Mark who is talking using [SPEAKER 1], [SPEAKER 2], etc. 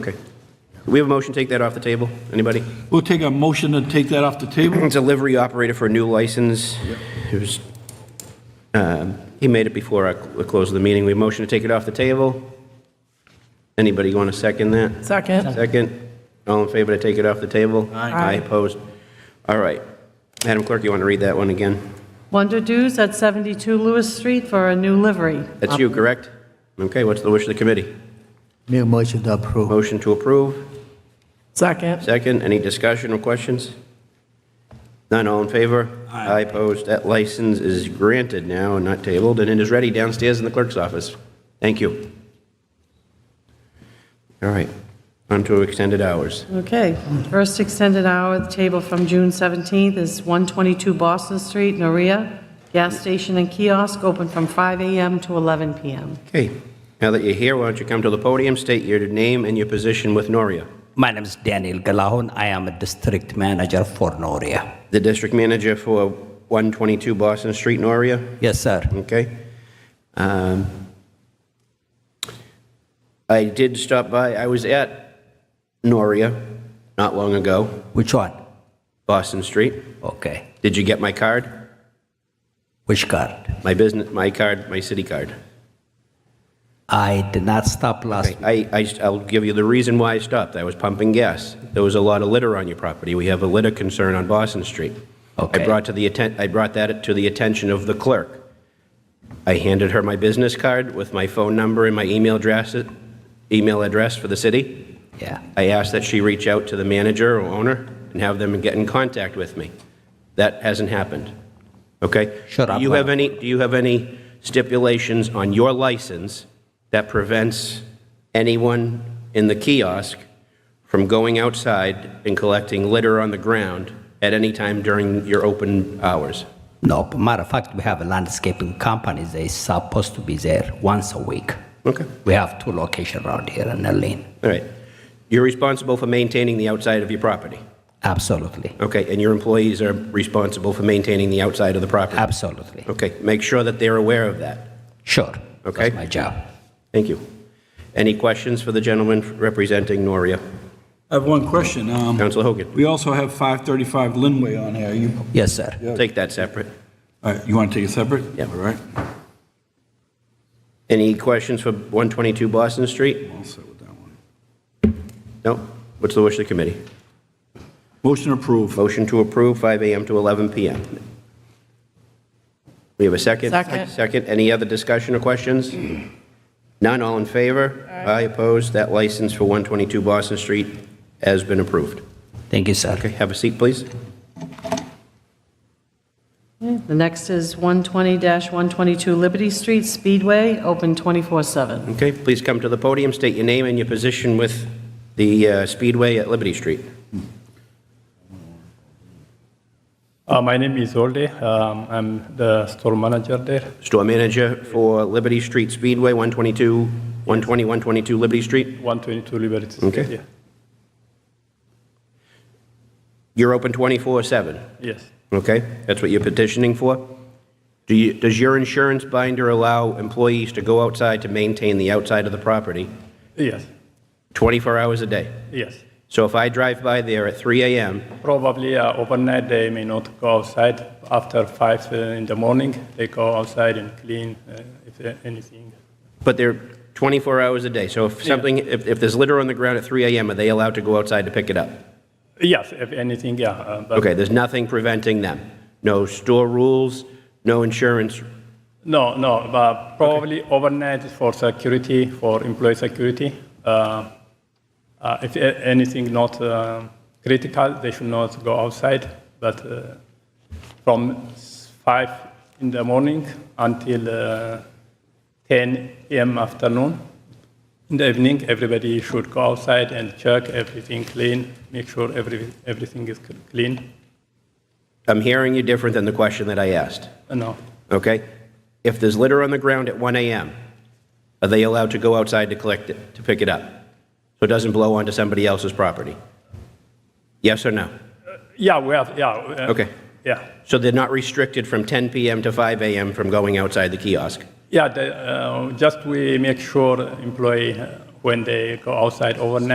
[SPEAKER 1] Okay. We have a motion, to take that off the table? Anybody?
[SPEAKER 2] We'll take a motion to take that off the table.
[SPEAKER 1] Delivery operator for a new license. It was, um, he made it before I cl- closed the meeting. We have a motion to take it off the table. Anybody want to second that?
[SPEAKER 3] Second.
[SPEAKER 1] Second? All in favor to take it off the table? Aye. opposed? All right. Madam Clerk, you want to read that one again?
[SPEAKER 3] Wonder Dews at 72 Lewis Street for a new livery.
[SPEAKER 1] That's you, correct? Okay, what's the wish of the committee?
[SPEAKER 4] Make a motion to approve.
[SPEAKER 1] Motion to approve?
[SPEAKER 3] Second.
[SPEAKER 1] Second, any discussion or questions? None, all in favor? Aye. opposed, that license is granted now and not tabled, and it is ready downstairs in the clerk's office. Thank you. All right, on to extended hours.
[SPEAKER 3] Okay. First extended hour at the table from June 17th is 122 Boston Street, Noria. Gas station and kiosk open from 5 a.m. to 11 p.m.
[SPEAKER 1] Okay, now that you're here, why don't you come to the podium, state your name and your position with Noria,
[SPEAKER 5] My name is Daniel Galahun. I am a district manager for Noria.
[SPEAKER 1] the district manager for 122 Boston Street, Noria?
[SPEAKER 5] Yes, sir.
[SPEAKER 1] Okay. Um, I did stop by, I was at Noria not long ago,
[SPEAKER 5] Which one?
[SPEAKER 1] Boston Street.
[SPEAKER 5] Okay.
[SPEAKER 1] Did you get my card?
[SPEAKER 5] Which card?
[SPEAKER 1] My business, my card, my city card?
[SPEAKER 5] I did not stop last.
[SPEAKER 1] I, I, I'll give you the reason why I stopped. I was pumping gas. There was a lot of litter on your property. We have a litter concern on Boston Street. I
[SPEAKER 5] Okay.
[SPEAKER 1] brought to the atten, I brought that to the attention of the clerk. I handed her my business card with my phone number and my email address, email address for the city.
[SPEAKER 5] Yeah.
[SPEAKER 1] I asked that she reach out to the manager or owner and have them get in contact with me. That hasn't happened. Okay?
[SPEAKER 5] Shut up,
[SPEAKER 1] Do you have
[SPEAKER 5] Mike.
[SPEAKER 1] any, do you have any stipulations on your license that prevents anyone in the kiosk from going outside and collecting litter on the ground at any time during your open hours?
[SPEAKER 5] No. Matter of fact, we have a landscaping company. They supposed to be there once a week.
[SPEAKER 1] Okay,
[SPEAKER 5] We have two locations around here in Elaine.
[SPEAKER 1] all right. You're responsible for maintaining the outside of your property.
[SPEAKER 5] Absolutely.
[SPEAKER 1] Okay, and your employees are responsible for maintaining the outside of the property.
[SPEAKER 5] Absolutely.
[SPEAKER 1] Okay, make sure that they're aware of that.
[SPEAKER 5] Sure.
[SPEAKER 1] Okay.
[SPEAKER 5] That's my job.
[SPEAKER 1] Thank you. Any questions for the gentleman representing Noria?
[SPEAKER 2] I have one question. Um,
[SPEAKER 1] Councilor Hogan,
[SPEAKER 2] We also have 535 Linway on here. You,
[SPEAKER 5] Yes, sir.
[SPEAKER 1] take that separate.
[SPEAKER 2] all right, you want to take it separate?
[SPEAKER 1] Yeah.
[SPEAKER 2] All right.
[SPEAKER 1] Any questions for 122 Boston Street?
[SPEAKER 2] I'll sit with that one.
[SPEAKER 1] No? What's the wish of the committee?
[SPEAKER 2] Motion approved.
[SPEAKER 1] Motion to approve, 5 AM to 11 PM. We have a second?
[SPEAKER 3] Second.
[SPEAKER 1] Second. Any other discussion or questions? None, all in favor? Aye. opposed. That license for 122 Boston Street has been approved.
[SPEAKER 5] Thank you, sir.
[SPEAKER 1] Okay, have a seat, please.
[SPEAKER 3] The next is 120-122 Liberty Street Speedway, open 24/7.
[SPEAKER 1] Okay, please come to the podium, state your name and your position with the uh, Speedway at Liberty Street.
[SPEAKER 6] Uh, my name is Olde. Um, I'm the store manager there.
[SPEAKER 1] Store manager for Liberty Street Speedway, 122, 120, 122 Liberty Street.
[SPEAKER 6] 122 Liberty Street.
[SPEAKER 1] Okay.
[SPEAKER 6] Yeah.
[SPEAKER 1] You're open 24/7,
[SPEAKER 6] Yes.
[SPEAKER 1] okay? That's what you're petitioning for? Do you, does your insurance binder allow employees to go outside to maintain the outside of the property
[SPEAKER 6] Yes.
[SPEAKER 1] 24 hours a day?
[SPEAKER 6] Yes.
[SPEAKER 1] So if I drive by there at 3 AM,
[SPEAKER 6] Probably uh, overnight they may not go outside. After 5 uh, in the morning, they go outside and clean uh, if uh, anything.
[SPEAKER 1] but they're 24 hours a day, so if something, if, if there's litter on the ground at 3 AM, are they allowed to go outside to pick it up?
[SPEAKER 6] Yes, if anything, yeah. Uh, but
[SPEAKER 1] Okay, there's nothing preventing them? No store rules, no insurance
[SPEAKER 6] No, no, but probably overnight for security, for employee security. Uh, uh, if a- anything not uh, critical, they should not go outside. But uh, from s- five in the morning until uh, 10 a.m. afternoon, in the evening, everybody should go outside and check everything clean, make sure every, everything is c- clean.
[SPEAKER 1] I'm hearing you different than the question that I asked,
[SPEAKER 6] Uh, no,
[SPEAKER 1] okay? If there's litter on the ground at 1 AM, are they allowed to go outside to collect it, to pick it up? So it doesn't blow onto somebody else's property? Yes or no?
[SPEAKER 6] yeah, we have, yeah. uh,
[SPEAKER 1] Okay.
[SPEAKER 6] Yeah.
[SPEAKER 1] So they're not restricted from 10 PM to 5 AM from going outside the kiosk?
[SPEAKER 6] Yeah, the, uh, just we make sure employee, uh, when they go outside overnight,